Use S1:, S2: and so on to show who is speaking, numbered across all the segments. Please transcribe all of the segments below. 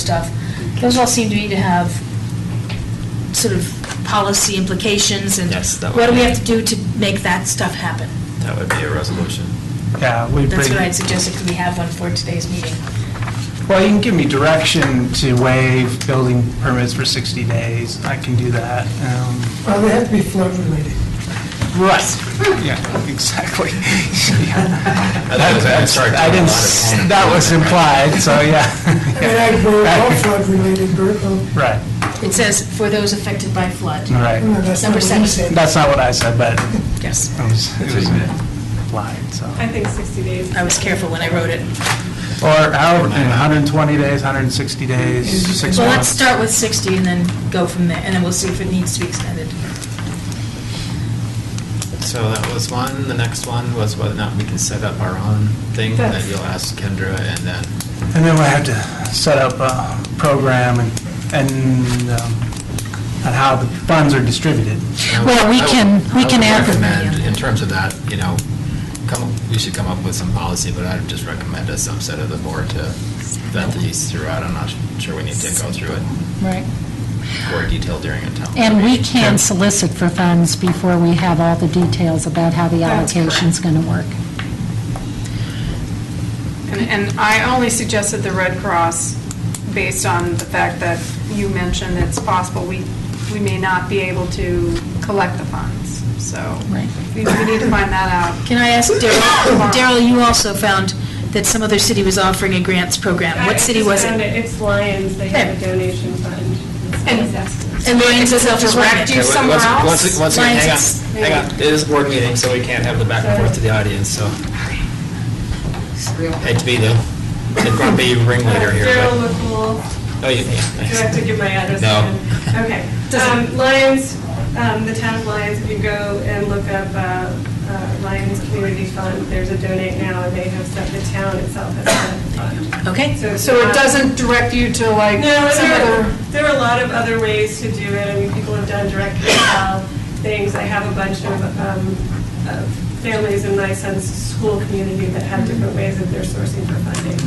S1: stuff, those all seem to me to have sort of policy implications, and
S2: Yes, that
S1: what do
S2: would
S1: we
S2: be-
S1: have to do to make that stuff happen?
S2: That would be a resolution.
S3: Yeah, we bring.
S1: That's what I'd suggested, could we have one for today's meeting?
S3: Well, you can give me direction to waive building permits for 60 days. I can do that. Um,
S4: Well, they have to be flood related.
S3: Right. Yeah, exactly.
S2: I'd start doing a
S3: I didn't,
S2: lot of
S3: s-
S2: panic
S3: that
S2: building
S3: was
S2: right
S3: implied, so
S4: I mean, I grow all
S3: yeah.
S4: flood related, but, um,
S3: Right,
S1: It says, for those affected by flood.
S4: no,
S3: right.
S4: that's not
S1: Number
S4: what
S1: seven.
S4: he said.
S3: That's not what I said, but it
S1: Yes,
S3: was, it
S2: what
S3: was
S2: you meant.
S3: implied, so.
S5: I think 60 days.
S1: I was careful when I wrote it.
S3: Or however, you know, 120 days, 160 days, six
S1: Well, let's
S3: months.
S1: start with 60 and then go from there, and then we'll see if it needs to be extended.
S2: So that was one. The next one was whether or not we can set up our own thing that
S5: That's-
S2: you'll ask Kendra and then,
S3: And then we have to set up a program and, and um, on how the funds are distributed.
S6: Well, we
S2: I would-
S6: can- we
S2: I
S6: can
S2: would
S6: add-
S2: recommend, in terms of that, you know, come, we should come up with some policy, but I'd just recommend a subset of the board to vet these throughout. I'm not sure we need to go through it
S6: Right.
S2: more detail during a town.
S6: And we
S2: meeting.
S6: can solicit for funds before we have all the details about how the
S5: That's correct.
S6: allocation's going to work.
S5: And, and I only suggested the Red Cross based on the fact that you mentioned it's possible we, we may not be able to collect the funds, so.
S6: Right.
S5: We we need to find that out.
S1: Can I ask Daryl, Daryl, you also found that some other city was offering a grants program. What city was it?
S7: It's Lions, they have a
S1: There.
S7: donation fund.
S5: And-
S1: And Lorraine's itself is
S5: Direct
S1: right.
S5: you
S2: Okay,
S5: somewhere
S2: once- once-
S5: else?
S2: Once, again, hang
S1: Mine's-
S2: on, hang on. It is a board meeting, so we can't have the back and forth to the audience, so. Hate to be the, the grumpy ringleader here,
S7: Daryl
S2: but.
S7: McCool,
S2: Oh, yeah, yeah,
S7: do I have to
S2: thanks.
S7: give my address?
S2: No.
S7: again? Okay. Um, Lions, um, the town of Lions, if you go and look up uh, uh, Lions Community Fund, there's a donate now, and they have set, the town itself has set a fund.
S1: Okay.
S7: it's
S5: So it
S7: not-
S5: doesn't direct you to like
S7: No, and
S5: some
S7: there,
S5: other,
S7: there are a lot of other ways to do it. I mean, people have done direct PayPal things. I have a bunch of, um, of families in my son's school community that have different ways that they're sourcing for funding.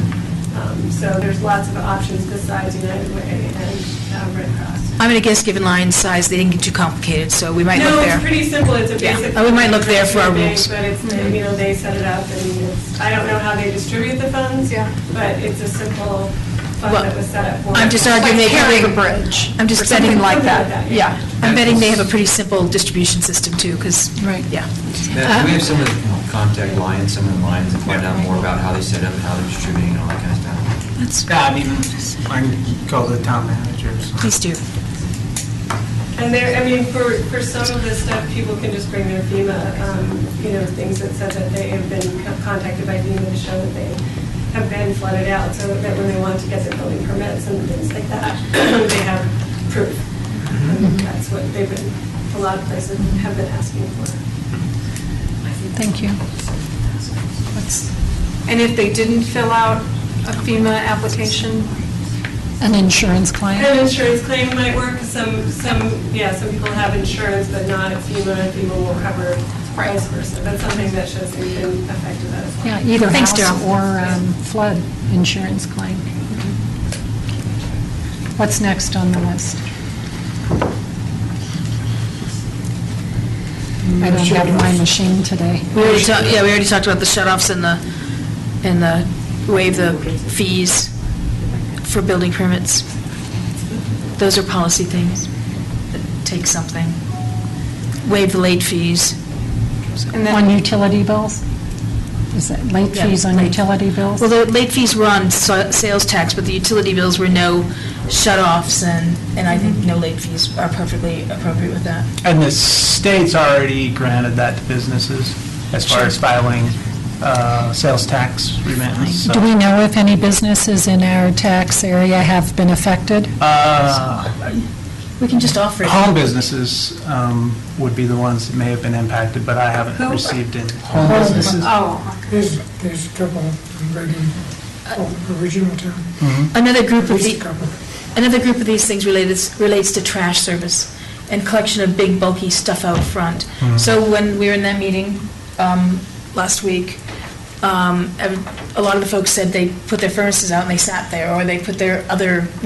S7: Um, so there's lots of options besides United Way and uh, Red Cross.
S1: I'm going to guess, given line size, they didn't get too complicated, so we might
S7: No,
S1: look there.
S7: it's pretty simple, it's a
S1: Yeah.
S7: basic.
S1: Oh, we might look there for our
S7: thing,
S1: rules.
S7: But it's, you know, they set it up and it's, I don't know how they distribute the funds.
S5: Yeah.
S7: But it's a simple fund
S1: Well,
S7: that was set up for.
S1: I'm just arguing they
S5: carrying
S1: have
S5: a
S1: a
S5: bridge.
S1: I'm just betting like
S7: Something like
S1: that.
S7: that,
S1: Yeah, I'm betting they have a pretty simple distribution system too, because,
S6: Right.
S1: yeah. Uh,
S8: Matt, do we have someone that can help contact Lions, some of the Lions, and find out more about how they set up, and how they're distributing, and all that kind of stuff?
S1: That's,
S3: Yeah, I mean, I can go to the town managers.
S1: please do.
S7: And there, I mean, for, for some of this stuff, people can just bring their FEMA, um, you know, things that said that they have been co- contacted by FEMA to show that they have been flooded out, so that when they want to get their building permits and things like that, they have proof. And That's what they've been, a lot of places have been asking for.
S6: Thank you.
S5: and if they didn't fill out a FEMA application,
S6: An insurance
S7: An
S6: client?
S7: insurance claim might work, some, some, yeah, some people have insurance, but not at FEMA, FEMA will cover vice versa. That's something that shows they've been affected by this.
S6: Yeah, either
S1: Thanks,
S6: house
S1: Daryl.
S6: or um, flood insurance claim. What's next on the list? I don't have my machine today.
S1: We already talked, yeah, we already talked about the shut-offs and the, and the waive the fees for building permits. Those are policy things. Take something. Waive the late fees.
S5: and
S6: On
S5: then,
S6: utility bills? Is that late
S1: Yeah,
S6: fees on
S1: late-
S6: utility bills?
S1: Well, the late fees were on sa- sales tax, but the utility bills were no shut-offs, and, and I think no late fees are perfectly appropriate with that.
S3: And the state's already granted that to businesses as far as filing uh, sales tax remittance. so-
S6: Do we know if any businesses in our tax area have been affected?
S3: Uh,
S1: We can just offer it.
S3: Home businesses um, would be the ones that may have been impacted, but I haven't received any. Home businesses.
S5: oh,
S4: There's, there's a couple of regular,
S1: Uh,
S4: oh, original town,
S1: Another group
S4: at
S1: of e-,
S4: least a
S1: the,
S4: couple.
S1: Another group of these things relates, relates to trash service and collection of big bulky stuff out front. So when we were in that meeting um, last week, um, ev- a lot of the folks said they put their furnaces out and they sat there, or they put their other